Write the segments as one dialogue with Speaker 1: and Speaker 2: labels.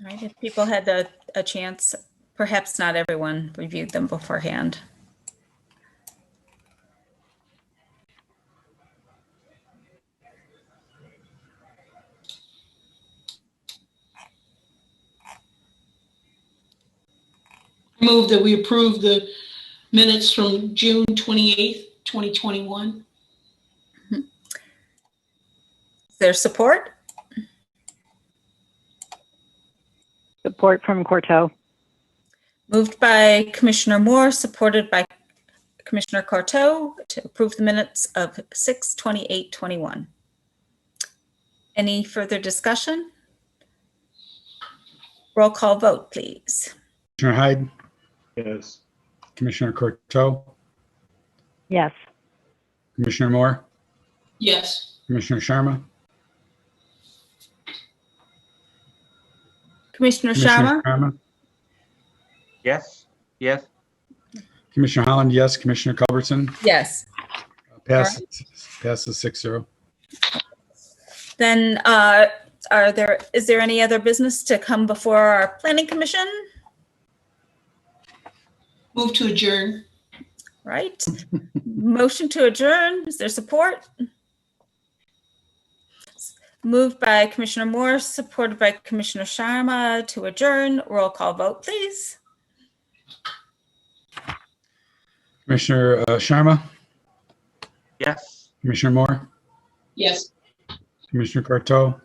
Speaker 1: All right, if people had a, a chance, perhaps not everyone reviewed them beforehand.
Speaker 2: Move that we approve the minutes from June 28th, 2021.
Speaker 1: Is there support?
Speaker 3: Support from Corto.
Speaker 1: Moved by Commissioner Moore, supported by Commissioner Corto to approve the minutes of 6:28:21. Any further discussion? Roll call vote, please.
Speaker 4: Commissioner Hyde,
Speaker 5: Yes.
Speaker 4: Commissioner Corto,
Speaker 3: Yes.
Speaker 4: Commissioner Moore,
Speaker 2: Yes.
Speaker 4: Commissioner Sharma,
Speaker 1: Commissioner Sharma?
Speaker 4: Commissioner Sharma,
Speaker 5: Yes, yes,
Speaker 4: Commissioner Holland, yes, Commissioner Culbertson,
Speaker 1: Yes.
Speaker 4: passes, passes six zero.
Speaker 1: Then uh, are there, is there any other business to come before our planning commission?
Speaker 2: Move to adjourn.
Speaker 1: Right? Motion to adjourn, is there support? Moved by Commissioner Moore, supported by Commissioner Sharma to adjourn. Roll call vote, please.
Speaker 4: Commissioner uh, Sharma,
Speaker 5: yes.
Speaker 4: Commissioner Moore,
Speaker 2: Yes.
Speaker 4: Commissioner Corto,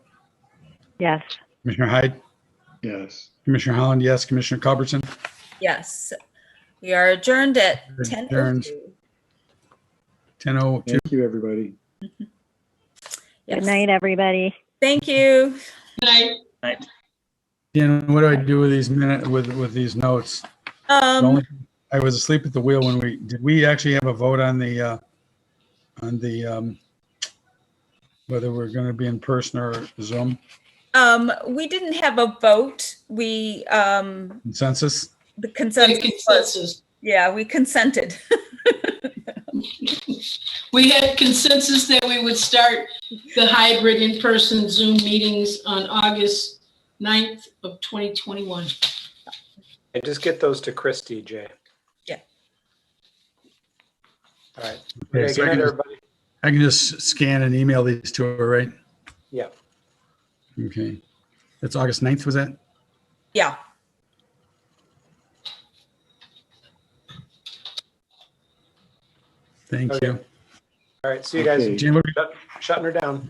Speaker 3: Yes.
Speaker 4: Commissioner Hyde,
Speaker 5: Yes.
Speaker 4: Commissioner Holland, yes, Commissioner Culbertson.
Speaker 1: Yes, we are adjourned at
Speaker 4: Adjourned.
Speaker 1: 10:02.
Speaker 4: 10:02.
Speaker 6: Thank you, everybody.
Speaker 3: Good
Speaker 1: Yes.
Speaker 3: night, everybody.
Speaker 1: Thank you.
Speaker 2: Good night.
Speaker 4: Dan, what do I do with these minute, with, with these notes? The
Speaker 1: Um,
Speaker 4: only- I was asleep at the wheel when we, did we actually have a vote on the, uh, on the, um, whether we're going to be in person or Zoom
Speaker 1: um, We didn't have a vote. We, um,
Speaker 4: consensus?
Speaker 1: the
Speaker 2: The
Speaker 1: consensus was,
Speaker 2: consensus.
Speaker 1: yeah, we consented.
Speaker 2: We had consensus that we would start the hybrid in-person Zoom meetings on August 9th of 2021.
Speaker 7: And just get those to Christie, Jay.
Speaker 1: Yeah.
Speaker 7: All right.
Speaker 4: Okay,
Speaker 7: Okay,
Speaker 4: so
Speaker 7: Good
Speaker 4: I
Speaker 7: night,
Speaker 4: can-
Speaker 7: everybody.
Speaker 4: I can just scan and email these to her, right?
Speaker 7: Yeah.
Speaker 4: Okay. That's August 9th, was that?
Speaker 1: Yeah.
Speaker 4: Thank
Speaker 7: Okay.
Speaker 4: you.
Speaker 7: All right. See you guys.
Speaker 6: Okay.
Speaker 4: Jane, what-
Speaker 7: Shut- Shutting her down.